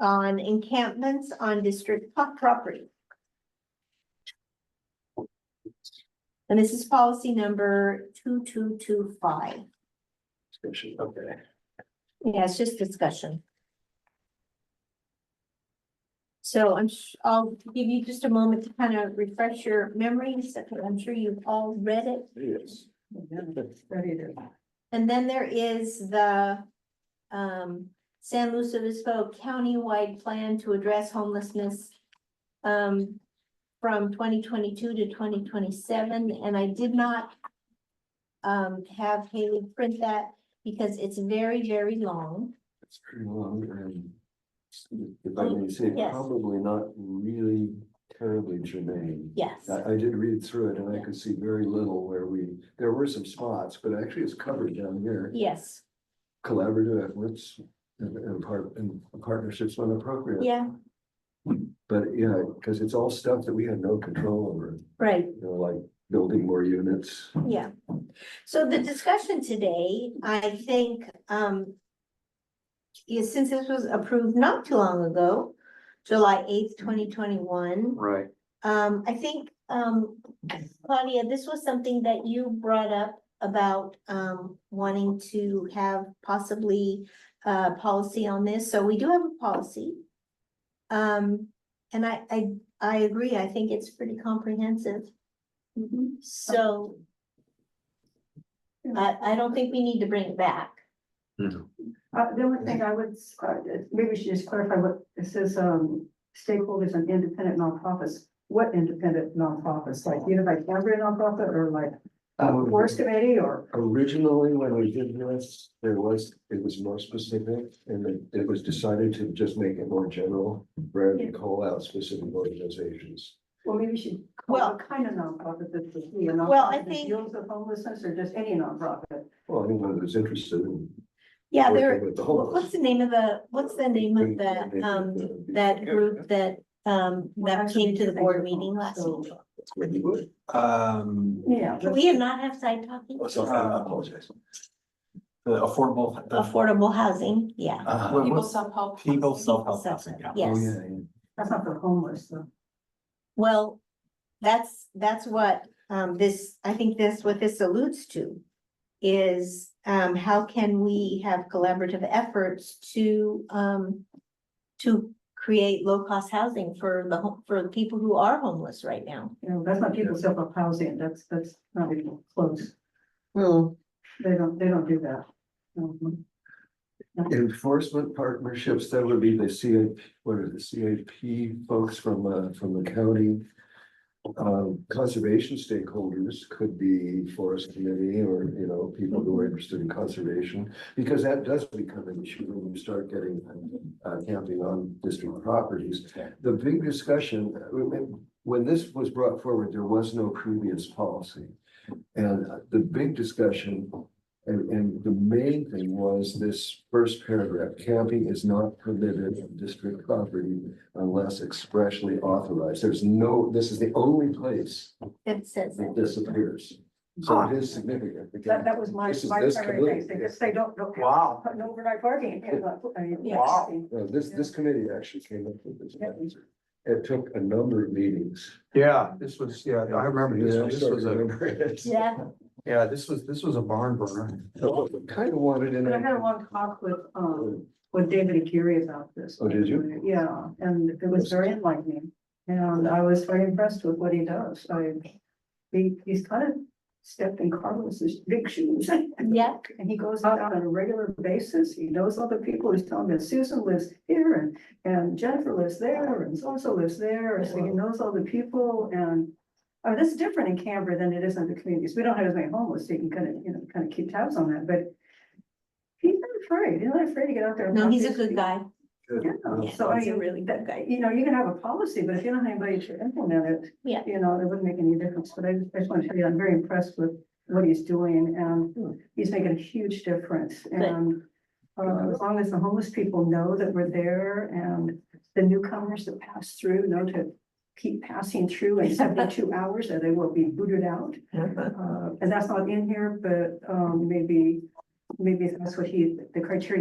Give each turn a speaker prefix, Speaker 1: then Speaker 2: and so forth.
Speaker 1: on encampments on district po- property. And this is policy number two, two, two, five.
Speaker 2: Discussion, okay.
Speaker 1: Yeah, it's just discussion. So I'm, sh- I'll give you just a moment to kind of refresh your memories. I'm sure you've all read it.
Speaker 2: Yes.
Speaker 1: And then there is the um San Luis Obispo countywide plan to address homelessness. Um, from twenty twenty-two to twenty twenty-seven, and I did not. Um, have Haley print that because it's very, very long.
Speaker 2: It's pretty long and. If I may say,
Speaker 1: Yes.
Speaker 2: probably not really terribly germane.
Speaker 1: Yes,
Speaker 2: I, I did read through it and I could see very little where we, there were some spots, but actually it's covered down here.
Speaker 1: yes,
Speaker 2: Collaborative efforts and, and part, and partnerships when appropriate.
Speaker 1: yeah,
Speaker 2: But, yeah, because it's all stuff that we had no control over,
Speaker 1: right,
Speaker 2: you know, like building more units.
Speaker 1: yeah. So the discussion today, I think, um. Is since this was approved not too long ago, July eighth, twenty twenty-one.
Speaker 2: Right.
Speaker 1: Um, I think, um, Claudia, this was something that you brought up about, um, wanting to have possibly. Uh, policy on this, so we do have a policy. Um, and I, I, I agree, I think it's pretty comprehensive,
Speaker 3: Mm-hmm.
Speaker 1: so. I, I don't think we need to bring it back.
Speaker 3: Uh, the only thing I would, uh, maybe we should just clarify what, it says, um, stakeholders and independent nonprofits. What independent nonprofits, like Unified Cambria nonprofit or like uh,
Speaker 2: Mm-hmm.
Speaker 3: Forest Committee or?
Speaker 2: Originally, when we did this, there was, it was more specific and it- it was decided to just make it more general rather than call out specific organizations.
Speaker 3: Well, maybe we should. call
Speaker 1: Well-
Speaker 3: it Kind of nonprofit that's the key, a
Speaker 1: Well, I
Speaker 3: nonprofit that
Speaker 1: think-
Speaker 3: Deals with homelessness or just any nonprofit.
Speaker 2: Well, anyone who's interested in
Speaker 1: Yeah, there,
Speaker 2: working with the homeless.
Speaker 1: what's the name of the, what's the name of the, um, that group that, um, that came to the board meeting last
Speaker 3: So,
Speaker 1: week?
Speaker 2: When you would.
Speaker 4: Um,
Speaker 3: Yeah.
Speaker 1: Can we not have side talking?
Speaker 2: Oh, sorry, I apologize.
Speaker 4: the affordable. the-
Speaker 1: Affordable housing, yeah.
Speaker 2: Uh,
Speaker 3: Oh,
Speaker 4: what-
Speaker 5: People
Speaker 4: what's-
Speaker 5: self-help.
Speaker 4: People
Speaker 1: People
Speaker 4: self-help. housing,
Speaker 1: self-help,
Speaker 4: yeah.
Speaker 2: oh,
Speaker 1: Yes,
Speaker 2: yeah, yeah.
Speaker 3: That's not for homeless, though.
Speaker 1: well, that's, that's what, um, this, I think that's what this alludes to. Is, um, how can we have collaborative efforts to, um. To create low-cost housing for the, ho- for the people who are homeless right now.
Speaker 3: You know, that's not people self-help housing, that's, that's not even close. They don't, they don't do that. Mhm.
Speaker 2: Enforcement partnerships, that would be the CAP, what are the CAP folks from, uh, from the county. Um, conservation stakeholders could be forest committee or, you know, people who are interested in conservation. Because that does become an issue when you start getting, uh, camping on district properties. The big discussion, uh, when- when this was brought forward, there was no previous policy. And uh, the big discussion and, and the main thing was this first paragraph, camping is not permitted on district property unless expressly authorized. There's no, this is the only place
Speaker 1: That says
Speaker 2: that
Speaker 1: that.
Speaker 2: this appears. So it is significant.
Speaker 3: Ah, That, that was my,
Speaker 2: This is-
Speaker 3: my
Speaker 2: this
Speaker 3: primary thing,
Speaker 2: committee-
Speaker 3: because they don't, don't.
Speaker 4: Wow.
Speaker 3: Putting overnight parking. in, uh, I mean,
Speaker 1: Yeah.
Speaker 4: Wow.
Speaker 2: No, This, this committee actually came up with this. It took a number of meetings.
Speaker 4: Yeah, this was, yeah, I remember this,
Speaker 2: Yeah,
Speaker 4: one.
Speaker 2: I
Speaker 4: this
Speaker 2: sort of
Speaker 4: was a,
Speaker 2: remember it.
Speaker 1: Yeah,
Speaker 4: yeah, this was, this was a barn burner.
Speaker 2: So I Kind of wanted in.
Speaker 3: But I had a long talk with, um, with David Akiri about this.
Speaker 2: Oh, did you?
Speaker 3: Yeah, and it was very enlightening, and I was very impressed with what he does, I, he, he's kind of stepped in Carlos's big shoes.
Speaker 1: yeah,
Speaker 3: And he goes out on a regular basis, he knows other people, he's telling me Susan lives here and, and Jennifer lives there and so-and-so lives there, so he knows all the people and. Oh, this is different in Canberra than it is in the communities, we don't have as many homeless, so you can kind of, you know, kind of keep tabs on that, but. He's not afraid, he's not afraid to get out there. and
Speaker 1: no,
Speaker 3: talk
Speaker 1: he's
Speaker 3: to
Speaker 1: a good
Speaker 3: these
Speaker 1: guy.
Speaker 3: people. Yeah,
Speaker 1: Yeah,
Speaker 3: so I
Speaker 1: he's a
Speaker 3: mean,
Speaker 1: really good guy.
Speaker 3: you know, you can have a policy, but if you don't have anybody to implement it.
Speaker 1: Yeah.
Speaker 3: You know, it wouldn't make any difference, but I just, I just want to tell you, I'm very impressed with what he's doing
Speaker 1: Hmm.
Speaker 3: and he's making a huge difference and. Uh, as long as the homeless people know that we're there and the newcomers that pass through know to keep passing through in seventy-two hours or they will be booted out. Uh, and that's not in here, but, um, maybe maybe that's what he, the criteria